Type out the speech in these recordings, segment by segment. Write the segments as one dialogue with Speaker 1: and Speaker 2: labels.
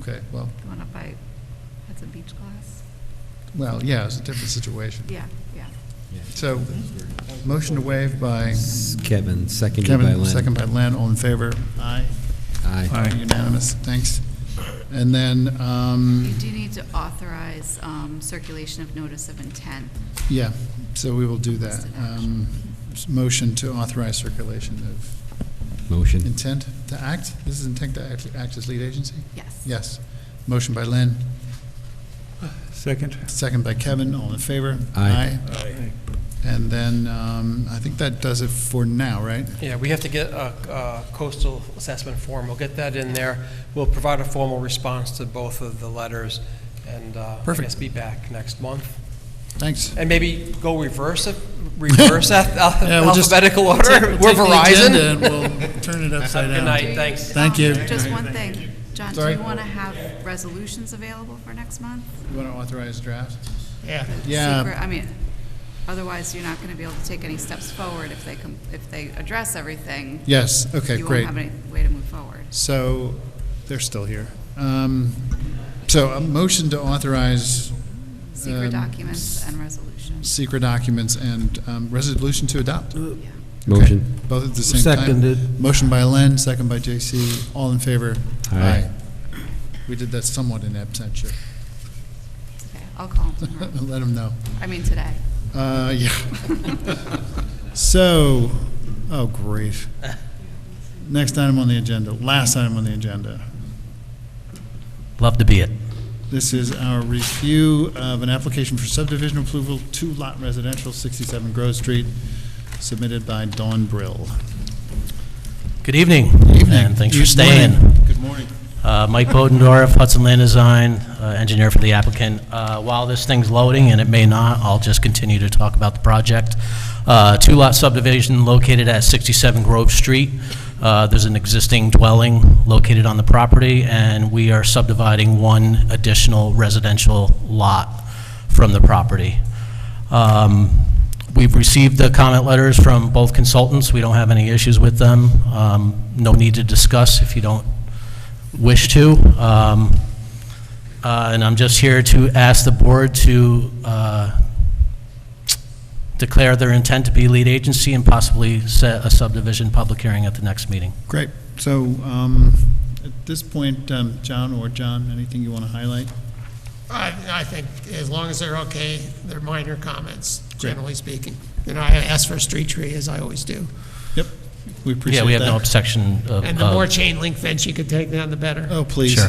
Speaker 1: Okay, well,
Speaker 2: Going up by, that's a beach class?
Speaker 1: well, yeah, it's a different situation.
Speaker 2: Yeah, yeah.
Speaker 1: So, motion to waive by
Speaker 3: Kevin, seconded by
Speaker 1: Kevin,
Speaker 3: Len.
Speaker 1: second by Len, all in favor? Aye.
Speaker 3: Aye.
Speaker 1: Unanimous, thanks. And then,
Speaker 2: You
Speaker 1: um,
Speaker 2: do need to authorize um, circulation of notice of intent.
Speaker 1: yeah, so we will do that.
Speaker 2: Listed action.
Speaker 1: Um, s- Motion to authorize circulation of
Speaker 3: Motion.
Speaker 1: intent to act? This is intent to act- act as lead agency?
Speaker 2: Yes.
Speaker 1: Yes. Motion by Len,
Speaker 4: Second?
Speaker 1: second by Kevin, all in favor?
Speaker 3: Aye.
Speaker 1: And then, um, I think that does it for now, right?
Speaker 5: Yeah, we have to get a a coastal assessment form. We'll get that in there. We'll provide a formal response to both of the letters and uh, I
Speaker 1: Perfect.
Speaker 5: guess be back next month.
Speaker 1: Thanks.
Speaker 5: And maybe go reverse, it- reverse alph-
Speaker 1: Yeah, we'll just
Speaker 5: alphabetical order.
Speaker 1: take-
Speaker 5: We're
Speaker 1: take the agenda
Speaker 5: Verizon.
Speaker 1: and we'll turn it upside down.
Speaker 5: Good night, thanks.
Speaker 1: Thank
Speaker 2: Um,
Speaker 1: you.
Speaker 2: Just one thing. John, do
Speaker 1: Sorry?
Speaker 2: you want to have resolutions available for next month?
Speaker 1: You want to authorize draft?
Speaker 4: Yeah.
Speaker 1: Yeah,
Speaker 2: Secret- I mean, otherwise you're not going to be able to take any steps forward if they, com- if they address everything.
Speaker 1: yes, okay,
Speaker 2: You won't
Speaker 1: great.
Speaker 2: have any way to move forward.
Speaker 1: So, they're still here. Um, So a motion to authorize Um,
Speaker 2: Secret documents and resolutions.
Speaker 1: secret documents and um, resolution to adopt. Okay,
Speaker 2: Yeah.
Speaker 3: Motion.
Speaker 1: Both at the same time.
Speaker 3: Seconded.
Speaker 1: Motion by Len, second by J.C. All in favor?
Speaker 3: Aye.
Speaker 1: Aye. We did that somewhat in absentia.
Speaker 2: It's okay. I'll call him tomorrow.
Speaker 1: Let them know.
Speaker 2: I mean, today.
Speaker 1: Uh, yeah. So, oh, great. Next item on the agenda, last item on the agenda.
Speaker 6: Love to be it.
Speaker 1: This is our review of an application for subdivision approval, two-lot residential, 67 Grove Street, submitted by Dawn Brill.
Speaker 6: Good evening. And thanks for
Speaker 1: Good morning.
Speaker 6: staying.
Speaker 1: Good morning.
Speaker 6: Uh, Mike Bodendorf, Hudson Land Design, uh, engineer for the applicant. Uh, While this thing's loading, and it may not, I'll just continue to talk about the project. Uh, Two-lot subdivision located at 67 Grove Street. Uh, There's an existing dwelling located on the property, and we are subdividing one additional residential lot from the property. Um, We've received the comment letters from both consultants. We don't have any issues with them. Um, No need to discuss if you don't wish to. Um, uh, And I'm just here to ask the board to uh, declare their intent to be lead agency and possibly set a subdivision public hearing at the next meeting.
Speaker 1: Great. So, um, at this point, um, John or John, anything you want to highlight?
Speaker 7: I, I think as long as they're okay, they're minor comments,
Speaker 1: Great.
Speaker 7: generally speaking. And I ask for a street tree, as I always do.
Speaker 1: Yep, we appreciate that.
Speaker 6: Yeah, we have no objection of... uh,
Speaker 7: And the more
Speaker 6: of-
Speaker 7: chain link fence you could take down, the better.
Speaker 1: Oh, please.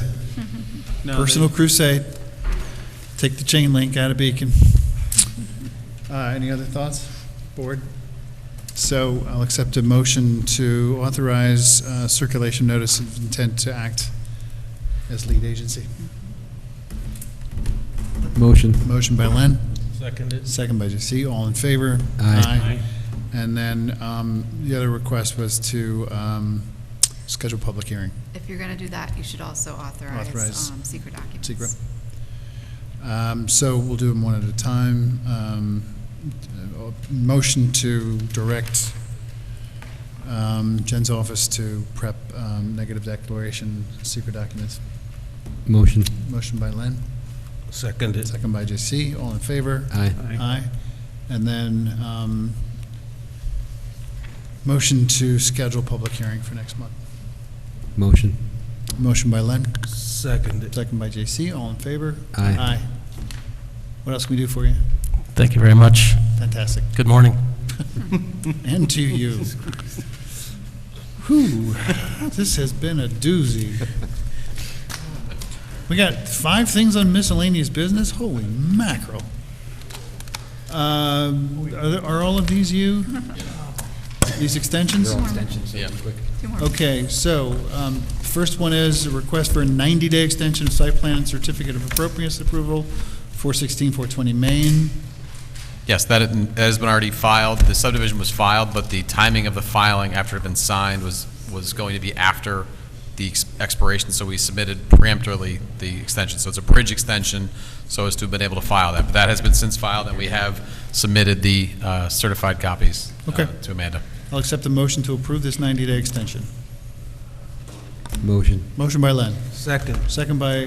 Speaker 6: Sure.
Speaker 1: Personal crusade. Take the chain link out of Beacon. Uh, Any other thoughts, board? So I'll accept a motion to authorize uh, circulation notice of intent to act as lead agency.
Speaker 3: Motion.
Speaker 1: Motion by Len,
Speaker 4: Seconded.
Speaker 1: second by JC. All in favor?
Speaker 3: Aye.
Speaker 1: And then um, the other request was to um, schedule public hearing.
Speaker 2: If you're going to do that, you should also
Speaker 1: Authorize.
Speaker 2: authorize um, secret documents.
Speaker 1: Secret. Um, So we'll do them one at a time. Um, uh, Motion to direct um, Jen's office to prep um, negative declaration, secret documents.
Speaker 3: Motion.
Speaker 1: Motion by Len,
Speaker 4: Seconded.
Speaker 1: second by JC. All in favor?
Speaker 3: Aye.
Speaker 1: Aye. And then um, motion to schedule public hearing for next month.
Speaker 3: Motion.
Speaker 1: Motion by Len,
Speaker 4: Seconded.
Speaker 1: second by JC. All in favor?
Speaker 3: Aye.
Speaker 1: Aye. What else can we do for you?
Speaker 6: Thank you very much.
Speaker 1: Fantastic.
Speaker 6: Good morning.
Speaker 1: And to you. Whew, this has been a doozy. We got five things on miscellaneous business? Holy mackerel. Um, Are there- are all of these you? These extensions?
Speaker 2: Two more.
Speaker 1: Okay, so, um, first one is a request for a 90-day extension of site plan and certificate of appropriateness approval, 416, 420 Main.
Speaker 8: Yes, that that has been already filed. The subdivision was filed, but the timing of the filing after it had been signed was, was going to be after the ex- expiration, so we submitted preemptorily the extension. So it's a bridge extension, so as to have been able to file that. But that has been since filed, and we have submitted the uh, certified copies uh,
Speaker 1: Okay.
Speaker 8: to Amanda.
Speaker 1: I'll accept a motion to approve this 90-day extension.
Speaker 9: Motion.
Speaker 1: Motion by Len,
Speaker 3: Second.
Speaker 1: second by